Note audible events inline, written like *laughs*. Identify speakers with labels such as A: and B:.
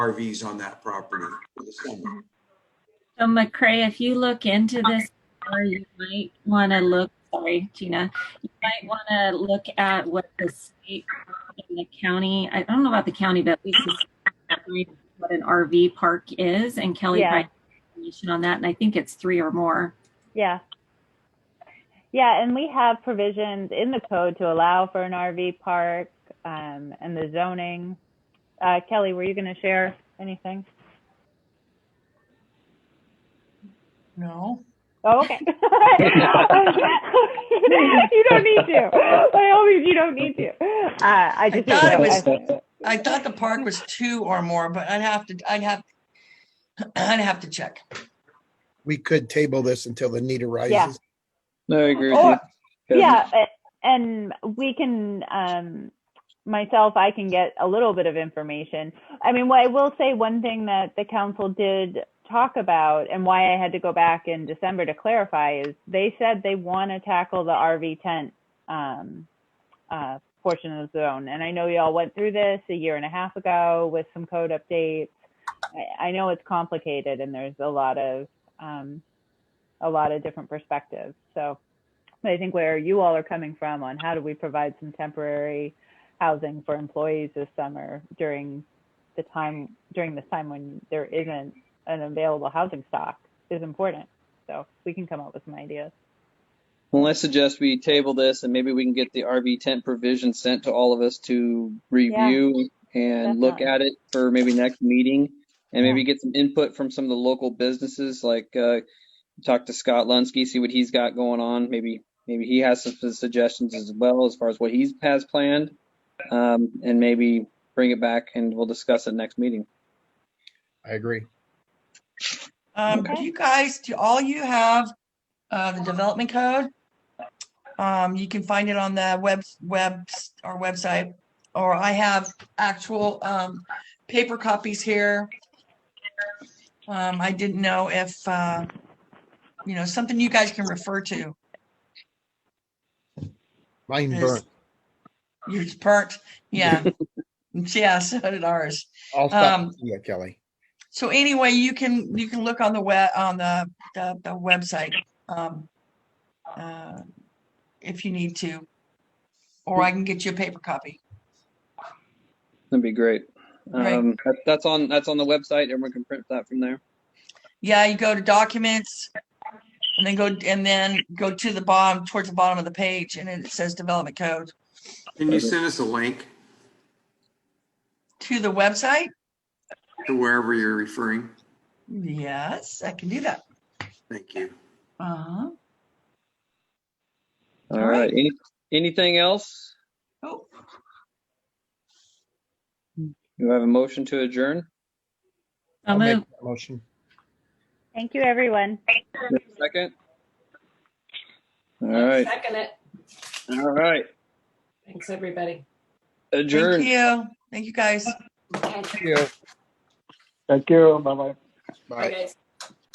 A: RVs on that property for the summer.
B: So McCray, if you look into this, more, you might want to look, sorry, Gina, you might want to look at what the state and the county, I don't know about the county, but at least the state defines what an RV park is and Kelly
C: Yeah.
B: provided information on that, and I think it's three or more.
C: Yeah. Yeah, and we have provisions in the code to allow for an RV park um, and the zoning. Uh, Kelly, were you going to share anything?
D: No.
C: Oh, okay. *laughs* you don't need to. By all means, you don't need to. Uh, I just
D: thought it was-
C: I-
D: I thought the park was two or more, but I'd have to, I'd have, *clears throat* I'd have to check.
E: we could table this until the need
C: Yeah.
E: arises.
F: *laughs* No, I agree with
C: Or-
F: you. Kevin.
C: yeah a- and we can um myself i can get a little bit of information i mean what i will say one thing that the council did talk about and why i had to go back in december to clarify is they said they want to tackle the rv tent um uh portion of the zone and i know y'all went through this a year and a half ago with some code updates i, I know it's complicated and there's a lot of um a lot of different perspectives so I think where you all are coming from on how do we provide some temporary housing for employees this summer during the time during this time when there isn't an available housing stock is important. So we can come up with some ideas.
F: Well, I suggest we table this and maybe we can get the RV tent provision sent to all of us to review and look at
C: definitely.
F: it for maybe next meeting. And
C: Yeah.
F: maybe get some input from some of the local businesses, like uh, talk to Scott Lunsky, see what he's got going on. Maybe maybe he has some suggestions as well as far as what he has planned. Um, and maybe bring it back and we'll discuss it next meeting.
E: I agree.
D: Um, do
C: Okay.
D: you guys, do all you have, uh, the development code? Um, you can find it on the web, web, our website, or I have actual, um, paper copies here. Um, I didn't know if, uh, you know, something you guys can refer to
E: Mine
D: Yes.
E: burnt.
D: is burnt, yeah. Yeah, so did ours.
E: I'll stop.
D: Um,
E: Yeah, Kelly.
D: So anyway, you can, you can look on the web, on the, the, the website, um, uh, if you need to. Or I can get you a paper copy.
F: That'd be great.
D: Right.
F: Um, that, that's on that's on the website. Everyone can print that from there.
D: Yeah, you go to documents and then go, and then go to the bottom, towards the bottom of the page and it says development code
A: Can you send us a link
D: to the website.
A: to wherever you're referring?
D: Yes, I can do that.
A: Thank you.
D: Uh-huh.
F: All
D: All
F: right.
D: right.
F: Any, anything else?
D: Oh,
F: You have a motion to adjourn?
B: So
E: I'll make
B: move.
E: that motion.
C: Thank you, everyone.
F: Second? All right.
G: Second it.
F: All right.
G: Thanks, everybody.
F: Adjourn.
D: thank you. Thank you, guys.
G: Okay.
E: Yeah.
H: Thank you. Bye bye.
E: Bye.
G: Bye, guys.